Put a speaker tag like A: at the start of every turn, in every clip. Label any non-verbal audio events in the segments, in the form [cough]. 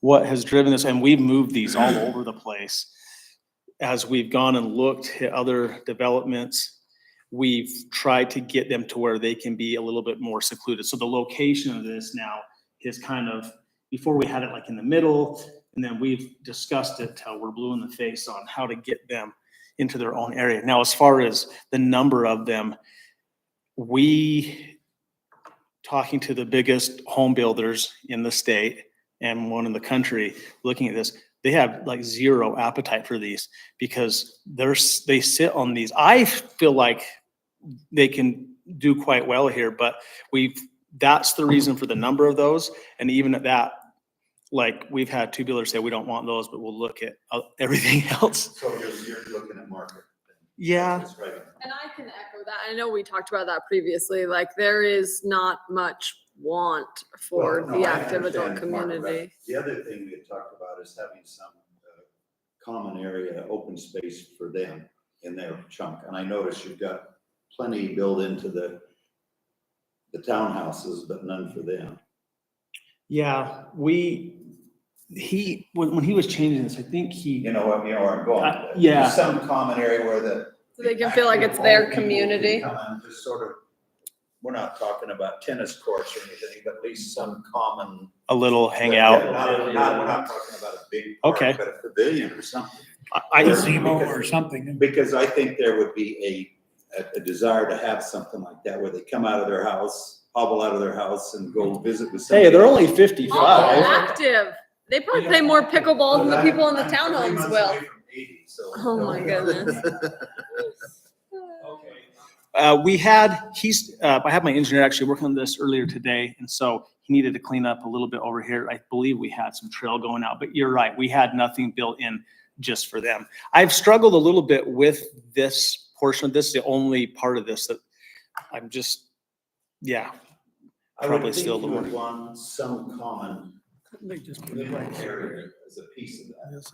A: what has driven this, and we've moved these all over the place. As we've gone and looked at other developments, we've tried to get them to where they can be a little bit more secluded. So the location of this now is kind of, before we had it like in the middle, and then we've discussed it till we're blue in the face on how to get them into their own area. Now, as far as the number of them, we, talking to the biggest home builders in the state and one in the country, looking at this, they have like zero appetite for these because there's, they sit on these. I feel like they can do quite well here, but we've, that's the reason for the number of those. And even at that, like, we've had two builders say, we don't want those, but we'll look at uh, [laughs] everything else.
B: So you're, you're looking at market.
A: Yeah.
B: That's right.
C: And I can echo that. I know we talked about that previously, like there is not much want for
B: Well, no,
C: the
B: I
C: active adult
B: understand market, but
C: community.
B: The other thing we had talked about is having some uh, common area, open space for them in their chunk. And I notice you've got plenty built into the, the townhouses, but none for them.
A: Yeah, we, he, when, when he was changing this, I think he,
B: You know what, you know where I'm going.
A: Uh,
B: with it.
A: yeah.
B: Some common area where the.
C: So they can feel like it's their community.
B: Come on, Just sort of, we're not talking about tennis courts or anything, but at least some common
A: a little
B: Yeah,
A: hangout.
B: Not, not, we're not talking about a big park,
A: Okay.
B: but a pavilion or something,
A: I, I-
D: Gazebo or something.
B: because I think there would be a, a, a desire to have something like that, where they come out of their house, hobble out of their house and go visit with somebody.
A: hey, they're only
B: else.
C: All the
A: fifty-five.
C: active, they probably play more pickleball than the people in the
B: I'm three months
C: townhomes
B: away
C: will.
B: from 80, so-
C: Oh
B: [laughs]
C: my goodness.
A: Uh, we had, he's, uh, I had my engineer actually working on this earlier today, and so he needed to clean up a little bit over here. I believe we had some trail going out, but you're right, we had nothing built in just for them. I've struggled a little bit with this portion of this, the only part of this that I'm just, yeah,
B: I would
A: Probably
B: think
A: still the
B: you
A: one.
B: would want some common living area as a piece of that,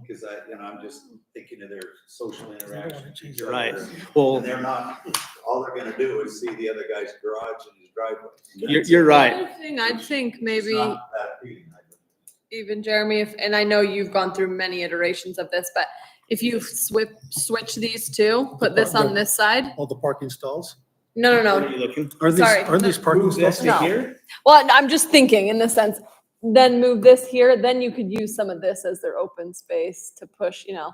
B: because I, you know, I'm just thinking of their social interaction. with each
A: You're right.
B: other.
A: well.
B: And they're not, all they're gonna do is see the other guy's garage and his driveway.
A: You're, you're right.
C: Another Thing I think
B: It's
C: maybe
B: not that appealing, I don't think.
C: even Jeremy, if, and I know you've gone through many iterations of this, but if you swip, switch these two, put this on this side.
D: All the parking stalls?
C: No, no,
A: What
C: no.
A: are you looking?
D: Are these,
C: Sorry, no.
D: are these parking
A: Move this
D: stalls?
A: to
C: No.
A: here?
C: Well, I'm just thinking in the sense, then move this here, then you could use some of this as their open space to push, you know.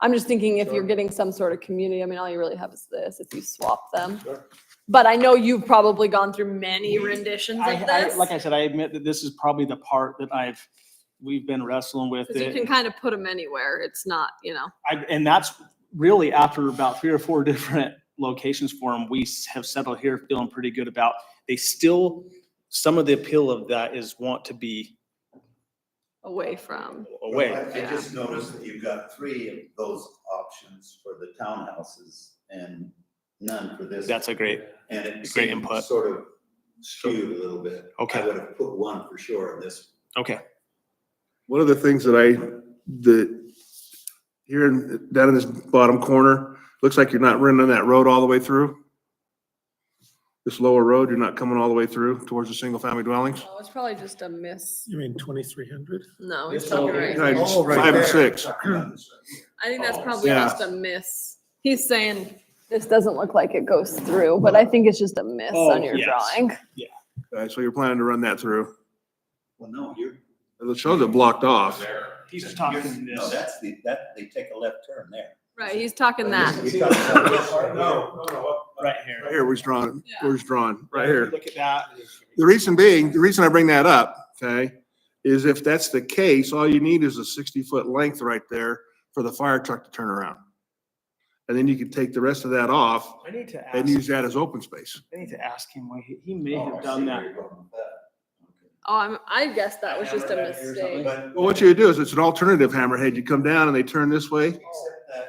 C: I'm just thinking if you're getting some sort of community, I mean, all you really have is this, if you swap them.
B: Sure.
C: But I know you've probably gone through many renditions
A: Mm-hmm. I,
C: of
A: I,
C: this.
A: like I said, I admit that this is probably the part that I've, we've been wrestling with
C: Cause you can
A: it.
C: kind of put them anywhere. It's not, you know,
A: I, and that's really after about three or four [laughs] different locations for them, we s- have settled here feeling pretty good about, they still, some of the appeal of that is want to be
C: away from.
A: away.
B: I- I just noticed that you've got three of those options for the townhouses and none for this.
A: That's a great,
B: And it
A: great
B: seemed
A: input.
B: sort of skewed a little bit.
A: Okay.
B: I would have put one for sure in this.
A: okay.
E: One of the things that I, that here in, down in this bottom corner, looks like you're not running that road all the way through. This lower road, you're not coming all the way through towards the single family dwellings.
C: Oh, it's probably just a miss.
D: You mean twenty-three hundred?
C: No,
A: This
C: he's probably
A: whole-
C: right.
E: Right,
B: Oh, right
E: five and
B: there.
E: six.
B: Talking about this right here.
C: I think that's
B: Oh,
C: probably
E: yeah.
C: just a miss. He's saying. This doesn't look like it goes through, but I think it's just a miss
A: on Oh, your yes.
C: drawing.
E: Uh, so you're planning to run that through.
B: Well, no, you're.
E: It shows it blocked off.
A: He's just
B: you're-
A: talking
B: No,
A: this.
B: that's the, that, they take a left turn there.
C: Right, he's talking that.
B: You're talking about this right here.
A: Right here.
E: Right Here, where's drawn, where's drawn, right here.
A: Look at that.
E: The reason being, the reason I bring that up, okay, is if that's the case, all you need is a sixty-foot length right there for the fire truck to turn around. And then you can take the rest of that off
A: I need to
E: and
A: ask,
E: use that as open space.
A: I need to ask him, why he- he may
B: Oh, I
A: have
B: see
A: done
B: where
A: that.
B: you're going with that. Okay.
C: Oh, I'm, I guess that was just a
A: Hammerhead here or something.
C: mistake.
B: But
E: Well, what you do is it's an alternative hammerhead. You come down and they turn this way.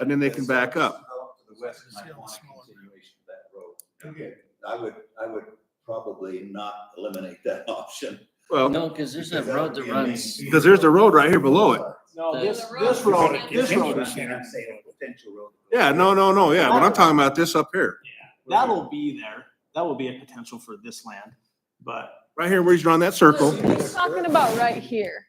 E: and then they can back up.
B: To the west might want a continuation of that road. I would, I would probably not eliminate that [laughs] option.
E: Well,
F: No, because there's a
B: Because that
F: road
B: would
F: that
B: be a main-
F: runs,
E: because there's a road right here below it.
A: No,
F: The-
A: this,
C: The
A: this
C: road.
A: road, this road is
B: I'm saying a potential road.
E: Yeah, no, no, no, yeah, but I'm talking about this up here.
A: That'll be there. That will be a potential for this land, but
E: Right here where he's drawn that circle.
C: He's talking about right here.